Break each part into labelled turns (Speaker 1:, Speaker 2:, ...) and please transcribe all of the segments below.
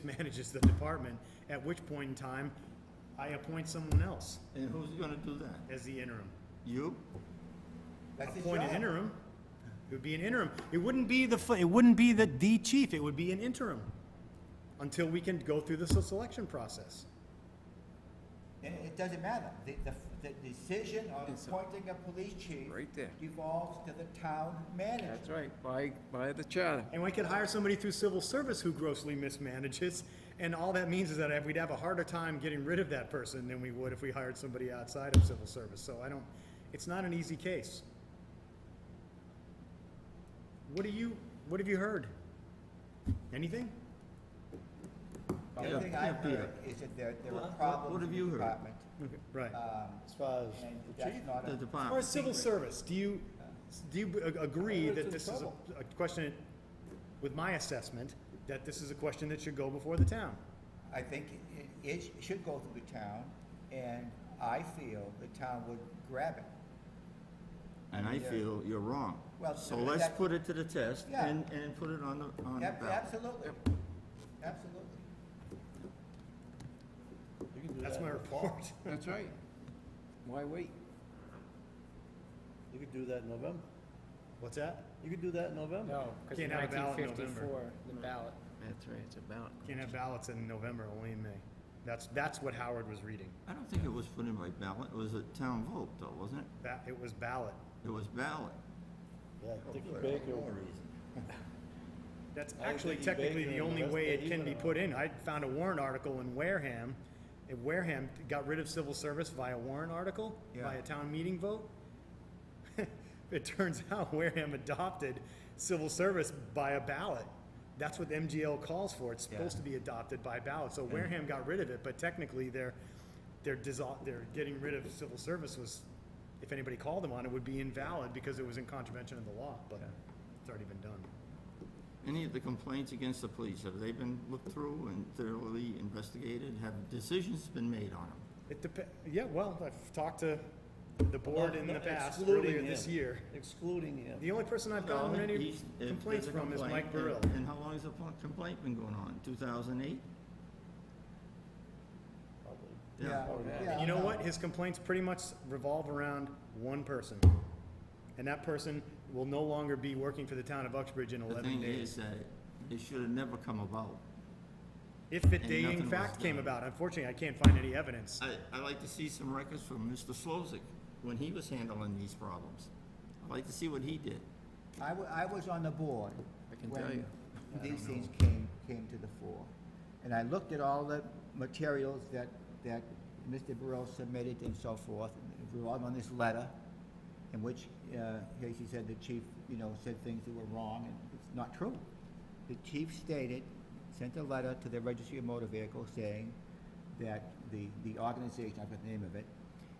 Speaker 1: mismanages the department, at which point in time, I appoint someone else
Speaker 2: And who's gonna do that?
Speaker 1: as the interim.
Speaker 2: You?
Speaker 3: That's his
Speaker 1: Appoint an
Speaker 3: job.
Speaker 1: interim, it would be an interim. It wouldn't be the, fu- it wouldn't be the D chief, it would be an interim, until we can go through the selection process.
Speaker 3: And it doesn't matter. The, the, the decision of
Speaker 4: It's a-
Speaker 3: appointing a police chief.
Speaker 4: Right there.
Speaker 3: Devolves to the town manager.
Speaker 4: That's right, by, by the charter.
Speaker 1: And we could hire somebody through civil service who grossly mismanages, and all that means is that we'd have a harder time getting rid of that person than we would if we hired somebody outside of civil service, so I don't, it's not an easy case. What do you, what have you heard? Anything?
Speaker 3: The
Speaker 2: Yeah,
Speaker 3: other thing
Speaker 2: yeah,
Speaker 3: I've heard
Speaker 2: Peter.
Speaker 3: is that there, there
Speaker 2: What- what-
Speaker 3: are
Speaker 2: what
Speaker 3: problems
Speaker 2: have
Speaker 3: in
Speaker 2: you
Speaker 3: the
Speaker 2: heard?
Speaker 3: department.
Speaker 1: Right.
Speaker 5: Uh,
Speaker 3: Um,
Speaker 5: As far as,
Speaker 3: and that's not
Speaker 2: The
Speaker 3: a,
Speaker 1: As far
Speaker 2: department.
Speaker 1: as civil service, do you, do you a- agree
Speaker 5: Well, it's
Speaker 1: that
Speaker 5: in
Speaker 1: this is a-
Speaker 5: trouble.
Speaker 1: a question, with my assessment, that this is a question that should go before the town?
Speaker 3: I think it, it sh- should go through the town, and I feel the town would grab it.
Speaker 2: And I feel you're wrong.
Speaker 3: Well,
Speaker 2: So let's
Speaker 3: that-
Speaker 2: put it to the test
Speaker 3: Yeah.
Speaker 2: and, and put it on the, on the
Speaker 3: Ab-
Speaker 2: ballot.
Speaker 3: Absolutely, absolutely.
Speaker 5: you can do
Speaker 1: That's
Speaker 5: that,
Speaker 1: my
Speaker 5: in-
Speaker 1: report.
Speaker 4: That's right. Why wait?
Speaker 5: you can do that in November.
Speaker 1: What's that?
Speaker 5: You can do that in November.
Speaker 6: No, because in
Speaker 1: Can't have a ballot
Speaker 6: nineteen
Speaker 1: in November.
Speaker 6: fifty-four, the ballot,
Speaker 4: That's right, it's about.
Speaker 1: Can't have ballots in November, only in May. That's, that's what Howard was reading.
Speaker 2: I don't think it was put in by ballot. It was a town vote though, wasn't it?
Speaker 1: That, it was ballot.
Speaker 2: It was ballot.
Speaker 5: Yeah, Dickie Baker,
Speaker 1: That's
Speaker 5: I
Speaker 1: actually
Speaker 5: think he
Speaker 1: technically
Speaker 5: baked it
Speaker 1: the
Speaker 5: in the
Speaker 1: only
Speaker 5: rest
Speaker 1: way
Speaker 5: that
Speaker 1: it
Speaker 5: he
Speaker 1: can
Speaker 5: went
Speaker 1: be
Speaker 5: on.
Speaker 1: put in. I found a warrant article in Wareham. And Wareham got rid of civil service via warrant article,
Speaker 3: Yeah.
Speaker 1: via town meeting vote. It turns out Wareham adopted civil service by a ballot. That's what MGL calls for. It's supposed to be adopted by ballot. So Wareham got rid of it, but technically they're, they're dissol, they're getting rid of civil service was, if anybody called them on it, would be invalid because it was in contravention of the law, but it's already been done.
Speaker 2: Any of the complaints against the police, have they been looked through and thoroughly investigated? Have decisions been made on them?
Speaker 1: It dep- yeah, well, I've talked to the board in the past,
Speaker 5: Excluding
Speaker 1: earlier this
Speaker 5: him.
Speaker 1: year.
Speaker 5: excluding him.
Speaker 1: The only person I've gotten
Speaker 2: Well,
Speaker 1: any
Speaker 2: he's- if
Speaker 1: complaints
Speaker 2: there's a
Speaker 1: from is
Speaker 2: complaint,
Speaker 1: Mike
Speaker 2: and-
Speaker 1: Burrell.
Speaker 2: And how long has the pl- complaint been going on? 2008?
Speaker 5: probably.
Speaker 2: Oh,
Speaker 1: You know
Speaker 3: no.
Speaker 1: what? His complaints pretty much revolve around one person. And that person will no longer be working for the town of Uxbridge in
Speaker 2: The
Speaker 1: eleven
Speaker 2: thing
Speaker 1: days.
Speaker 2: is that it- it should have never come about.
Speaker 1: If it,
Speaker 2: and
Speaker 1: they in
Speaker 2: nothing was
Speaker 1: fact came
Speaker 2: done.
Speaker 1: about, unfortunately, I can't find any evidence.
Speaker 2: I, I'd like to see some records from Mr. Slozak when he was handling these problems. I'd like to see what he did.
Speaker 3: I wa- I was on the board.
Speaker 4: I can tell you.
Speaker 3: When these things came, came to the fore. And I looked at all the materials that, that Mr. Burrell submitted and so forth, and we're all on this letter, in which, uh, as he said, the chief, you know, said things that were wrong, and it's not true. The chief stated, sent a letter to the registry of motor vehicles saying that the, the organization, I forgot the name of it,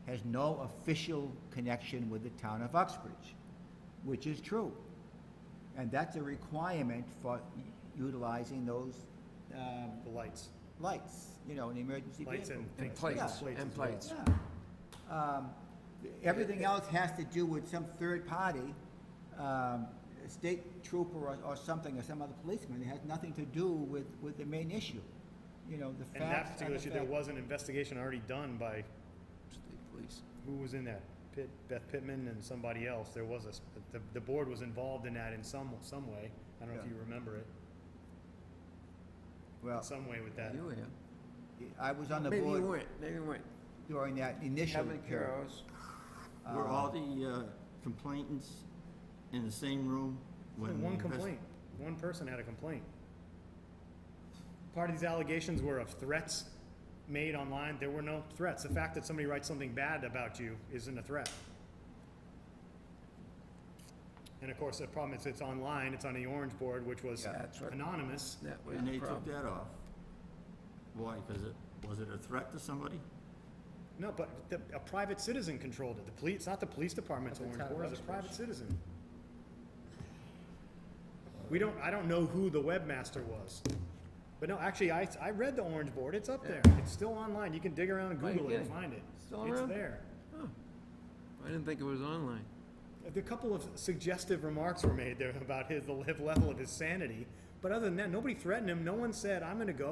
Speaker 3: has no official connection with the town of Uxbridge, which is true. And that's a requirement for utilizing those um,
Speaker 1: The lights,
Speaker 3: lights, you know, in the emergency
Speaker 1: lights
Speaker 3: vehicle.
Speaker 1: and
Speaker 4: And
Speaker 1: things.
Speaker 4: plates,
Speaker 1: Plates
Speaker 4: and
Speaker 1: as well.
Speaker 4: plates.
Speaker 3: Yeah. Um, Everything else has to do with some third party, um, state trooper or- or something, or some other policeman. It has nothing to do with, with the main issue, you know, the
Speaker 1: And that
Speaker 3: facts. are
Speaker 1: particular
Speaker 3: the
Speaker 1: issue, there
Speaker 3: facts.
Speaker 1: was an investigation already done by
Speaker 4: State police.
Speaker 1: who was in that? Pitt, Beth Pittman and somebody else. There was a, s- the, the board was involved in that in some, some way. I don't know if
Speaker 3: Yeah.
Speaker 1: you remember it,
Speaker 3: Well,
Speaker 1: some way with that.
Speaker 4: You were here.
Speaker 3: I was on the
Speaker 4: Maybe you
Speaker 3: board
Speaker 4: weren't, maybe you weren't.
Speaker 3: during that initial
Speaker 4: Kevin
Speaker 3: period.
Speaker 4: Carros,
Speaker 2: Were all the uh, complainants in the same room
Speaker 1: Only One
Speaker 2: when? the invest-
Speaker 1: complaint, one person had a complaint. Part of these allegations were of threats made online. There were no threats. The fact that somebody writes something bad about you isn't a threat. And of course, the problem is it's online, it's on the orange board, which was
Speaker 4: Yeah, that's right.
Speaker 1: anonymous.
Speaker 4: that was
Speaker 2: And
Speaker 4: the
Speaker 2: they took
Speaker 4: problem.
Speaker 2: that off. Why? Because it, was it a threat to somebody?
Speaker 1: No, but the, a private citizen controlled it. The police, it's not the police department's
Speaker 6: At the
Speaker 1: orange
Speaker 6: town of
Speaker 1: board, it's a
Speaker 6: Uxbridge.
Speaker 1: private citizen. We don't, I don't know who the webmaster was. But no, actually, I, I read the orange board. It's up there. It's still online. You can dig around and
Speaker 4: Oh, you're
Speaker 1: Google it and
Speaker 4: kidding.
Speaker 1: find it.
Speaker 4: Still
Speaker 1: It's
Speaker 4: around?
Speaker 1: there.
Speaker 4: I didn't think it was online.
Speaker 1: A couple of suggestive remarks were made there about his, the level of his sanity. But other than that, nobody threatened him. No one said, I'm gonna go.